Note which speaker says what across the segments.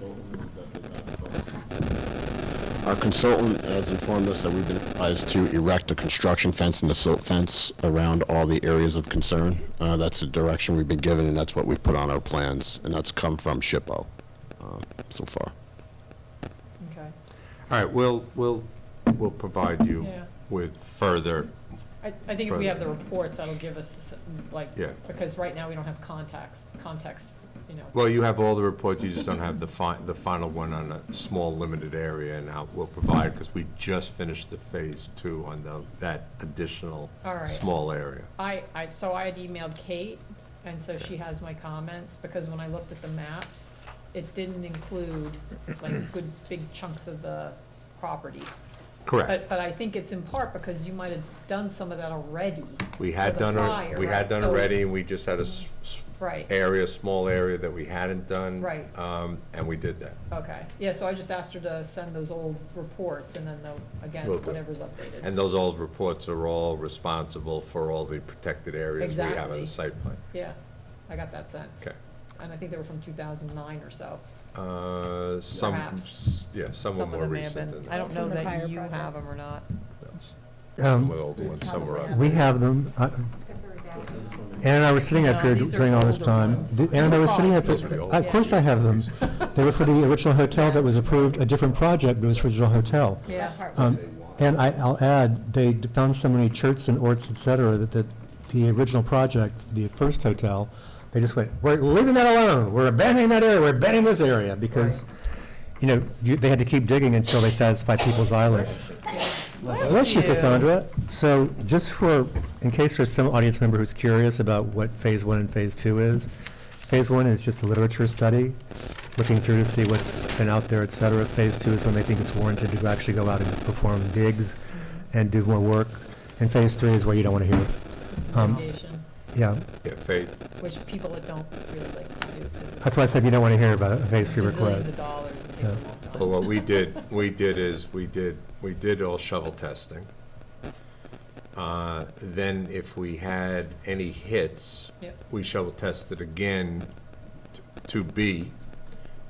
Speaker 1: consultant is that they're not supposed
Speaker 2: Our consultant has informed us that we've been advised to erect a construction fence and a silt fence around all the areas of concern. Uh, That's the direction we've been given, and that's what we've put on our plans, and that's come from SHPO uh, so far.
Speaker 3: Okay.
Speaker 4: All right, we'll, we'll, we'll provide you
Speaker 3: Yeah.
Speaker 4: with further,
Speaker 3: I, I think if we have the
Speaker 4: Further.
Speaker 3: reports, that'll give us, like,
Speaker 4: Yeah.
Speaker 3: because right now we don't have contacts, context, you know.
Speaker 4: well, you have all the reports, you just don't have the fi, the final one on a small, limited area, and now we'll provide, because we just finished the phase two on the, that additional
Speaker 3: All right.
Speaker 4: small area.
Speaker 3: I, I, so I had emailed Kate, and so she has my comments, because when I looked at the maps, it didn't include, like, good, big chunks of the property.
Speaker 4: Correct.
Speaker 3: But, but I think it's in part because you might have done some of that already.
Speaker 4: We
Speaker 3: for
Speaker 4: had
Speaker 3: the
Speaker 4: done, a-
Speaker 3: prior,
Speaker 4: we
Speaker 3: right,
Speaker 4: had done
Speaker 3: so-
Speaker 4: already, and we just had a s- s-
Speaker 3: Right,
Speaker 4: area, small area that we hadn't done.
Speaker 3: Right.
Speaker 4: Um, and we did that.
Speaker 3: okay. Yeah, so I just asked her to send those old reports, and then, the- again,
Speaker 4: Will do.
Speaker 3: whatever's updated.
Speaker 4: And those old reports are all responsible for all the protected areas we have in
Speaker 3: Exactly.
Speaker 4: the site plan.
Speaker 3: Yeah, I got that sense.
Speaker 4: Okay.
Speaker 3: And I think they were from 2009 or so.
Speaker 4: Uh, Some,
Speaker 3: Perhaps.
Speaker 4: yeah, some were
Speaker 3: of
Speaker 4: more
Speaker 3: them may have
Speaker 4: recent
Speaker 3: been-
Speaker 4: than
Speaker 3: I don't
Speaker 4: that.
Speaker 3: know
Speaker 5: From the prior
Speaker 3: that you
Speaker 5: project.
Speaker 3: have them or not.
Speaker 4: Some
Speaker 6: Um,
Speaker 4: were older ones, some were up.
Speaker 6: We have them. Uh, Ann and I were sitting up here
Speaker 3: No, these are
Speaker 6: during all this
Speaker 3: older
Speaker 6: time.
Speaker 3: ones.
Speaker 6: Ann and I were sitting up,
Speaker 3: Those
Speaker 4: were the old
Speaker 6: of course I have them. They were for the original hotel that was approved, a different project, but it was for the original hotel.
Speaker 3: Yeah.
Speaker 6: Um, And I, I'll add, they d- found so many churches and orts, et cetera, that, that the original project, the first hotel, they just went, we're leaving that alone, we're abandoning that area, we're abandoning this area, because, you know, you, they had to keep digging until they satisfied people's island. Bless you,
Speaker 3: you.
Speaker 6: Cassandra. So just for, in case there's some audience member who's curious about what Phase One and Phase Two is, Phase One is just a literature study, looking through to see what's been out there, et cetera. Phase Two is when they think it's warranted to actually go out and perform digs and do more work. And Phase Three is where you don't want to hear,
Speaker 3: It's a
Speaker 6: Um,
Speaker 3: mitigation,
Speaker 6: yeah.
Speaker 4: Yeah, Faith,
Speaker 3: which people that don't really like to do. 'cause it's
Speaker 6: That's why I said you don't want to hear about a Phase Three
Speaker 3: Gazillions of
Speaker 6: request.
Speaker 3: dollars, it takes a
Speaker 6: Yeah.
Speaker 3: long time.
Speaker 4: well, what we did, we did is, we did, we did all shovel testing. Uh, Then if we had any hits,
Speaker 3: Yep.
Speaker 4: we shovel tested again t- to B,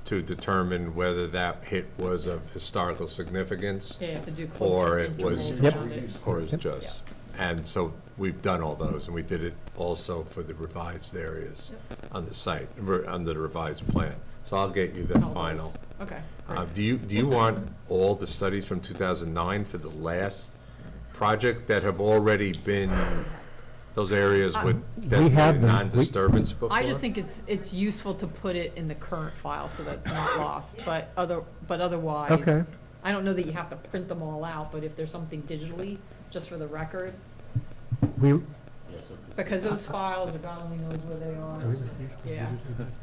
Speaker 4: to determine whether that hit was of historical significance.
Speaker 3: Yeah, you have to do
Speaker 4: Or
Speaker 3: closer
Speaker 4: it was,
Speaker 3: intervals
Speaker 6: Yep.
Speaker 3: around it.
Speaker 4: or is just. And so we've done all those, and we did it also for the revised areas on the site, re- under the revised plan. So I'll get you the
Speaker 3: All those.
Speaker 4: final.
Speaker 3: Okay.
Speaker 4: Uh, Do you, do you want all the studies from 2009 for the last project that have already been, those areas with
Speaker 6: have
Speaker 4: designated
Speaker 6: them. We-
Speaker 4: non-disturbance before?
Speaker 3: Uh, I just think it's, it's useful to put it in the current file so that's not lost, but other, but otherwise.
Speaker 6: Okay.
Speaker 3: I don't know that you have to print them all out, but if there's something digitally, just for the record,
Speaker 6: We,
Speaker 3: because those files, if God only knows where they are. Yeah.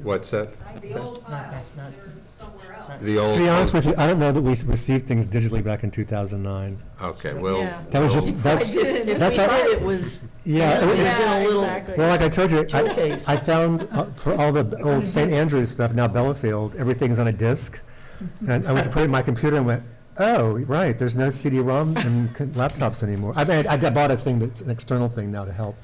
Speaker 4: What's that?
Speaker 7: The old files, they're somewhere else.
Speaker 4: The old.
Speaker 6: to be honest with you, I don't know that we s- received things digitally back in 2009.
Speaker 4: Okay, well.
Speaker 3: Yeah.
Speaker 6: That was just,
Speaker 4: we'll-
Speaker 3: I
Speaker 6: that's,
Speaker 3: did. it.
Speaker 6: that's
Speaker 5: We
Speaker 6: how.
Speaker 5: did, it was,
Speaker 6: Yeah,
Speaker 5: it
Speaker 6: it- it's-
Speaker 5: was in a
Speaker 3: Yeah,
Speaker 5: little,
Speaker 3: exactly.
Speaker 6: Well, like I told you, I,
Speaker 5: Showcase.
Speaker 6: I found uh, for all the old St. Andrews stuff, now Bellafield, everything's on a disc. And I went to put it in my computer and went, oh, right, there's no CD-ROM in c- laptops anymore. I mean, I I bought a thing that's an external thing now to help.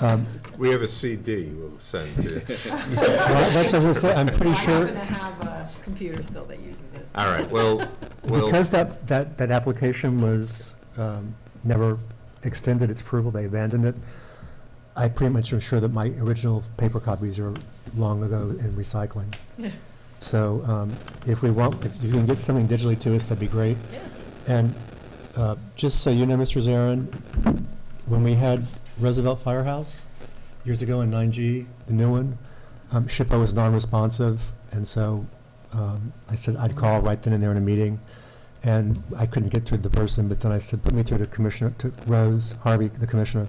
Speaker 6: Um,
Speaker 4: We have a CD we'll send to you.
Speaker 6: well, That's what I was gonna say, I'm pretty
Speaker 3: I happen to
Speaker 6: sure,
Speaker 3: have a computer still that uses it.
Speaker 4: All right, well, we'll.
Speaker 6: because that, that, that application was, um, never extended its approval, they abandoned it. I pretty much am sure that my original paper copies are long ago in recycling.
Speaker 3: Yeah.
Speaker 6: So um, if we want, if you can get something digitally to us, that'd be great.
Speaker 3: Yeah.
Speaker 6: And uh, just so you know, Mr. Zarin, when we had Roosevelt Firehouse years ago in 9G, the new one, um, SHPO was non-responsive, and so um, I said I'd call right then and there in a meeting, and I couldn't get through to the person, but then I said, put me through to Commissioner, to Rose Harvey, the commissioner,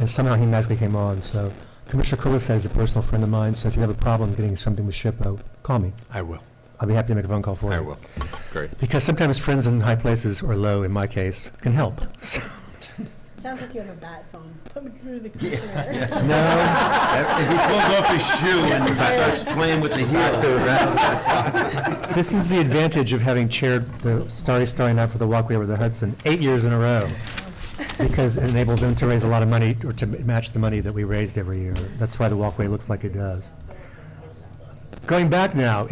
Speaker 6: and somehow he magically came on, so Commissioner Kulisek is a personal friend of mine, so if you have a problem getting something with SHPO, call me.
Speaker 4: I will.
Speaker 6: I'll be happy to make a phone call for you.
Speaker 4: I will. Great.
Speaker 6: Because sometimes friends in high places, or low in my case, can help.
Speaker 5: sounds like you have a bad phone. Put me through the commissioner.
Speaker 6: No,
Speaker 8: If he pulls off his shoe and starts playing with the heel.
Speaker 6: this is the advantage of having chaired the Starry Starry Night for the Walkway Over the Hudson eight years in a row, because it enabled them to raise a lot of money, or to m- match the money that we raised every year. That's why the walkway looks like it does. Going back now,